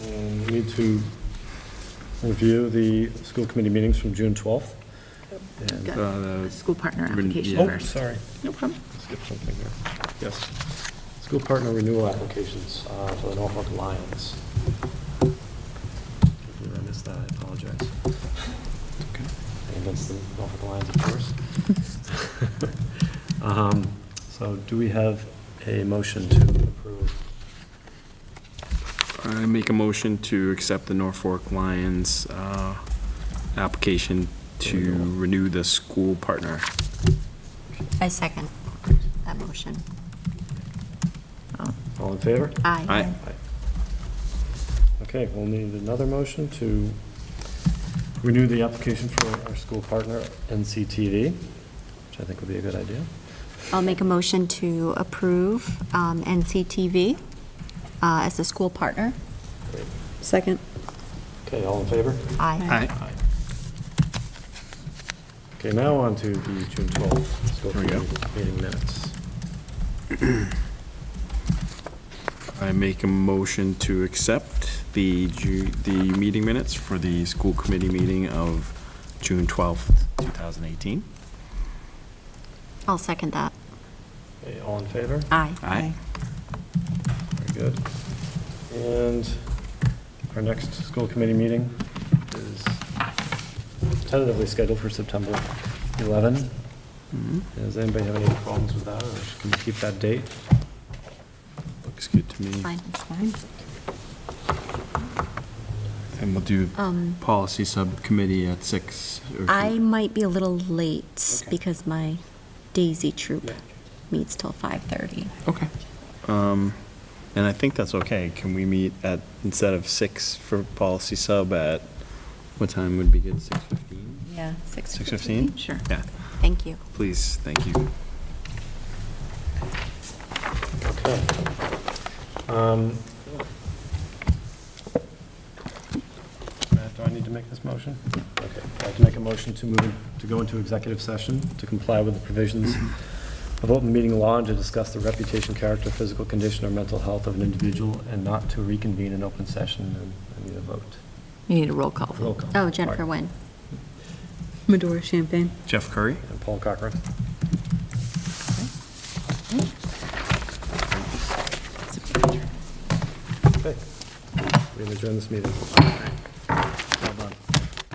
Um, need to review the school committee meetings from June 12th. And, Got uh, School partner Ribbon, application yeah. Oh, first. sorry, No problem. skipped something there. Yes. School partner renewal applications uh, for the Norfolk Lions. I missed that, I apologize. Against the Norfolk Lions, of course. Um, So do we have a motion to approve? I make a motion to accept the Norfolk Lions uh, application to Renewal. renew the school partner. I second that motion. All in favor? Aye. Aye. Okay, we'll need another motion to renew the application for our school partner, NCTV, which I think would be a good idea. I'll make a motion to approve um, NCTV uh, as a school partner. Second. Okay, all in favor? Aye. Okay, now on to the June 12th school There we go. committee meeting minutes. I make a motion to accept the, Ju- the meeting minutes for the school committee meeting of June 12th, 2018. I'll second that. Okay, all in favor? Aye. Aye. Very good. And our next school committee meeting is tentatively scheduled for September 11. Does anybody have any problems with that, or can we keep that date? Looks good to me. Fine, it's fine. And we'll do Um, policy subcommittee at six. or- I might be a little late Okay. because my Daisy troop Yeah. meets till 5:30. Okay. Um, And I think that's okay. Can we meet at, instead of six for policy sub at, what time would be good, 6:15? Yeah. 6:15? Sure. Yeah, Thank you. please, thank you. Okay. Um, Matt, do I need to make this motion? Okay, I'd like to make a motion to move, to go into executive session to comply with the provisions of open meeting law and to discuss the reputation, character, physical condition, or mental health of an individual, and not to reconvene in open session, and I need a vote. You need a roll call. Roll call. Oh, Jennifer Nguyen. Medora Champagne. Jeff Curry? And Paul Cochran. Okay. We adjourn this meeting.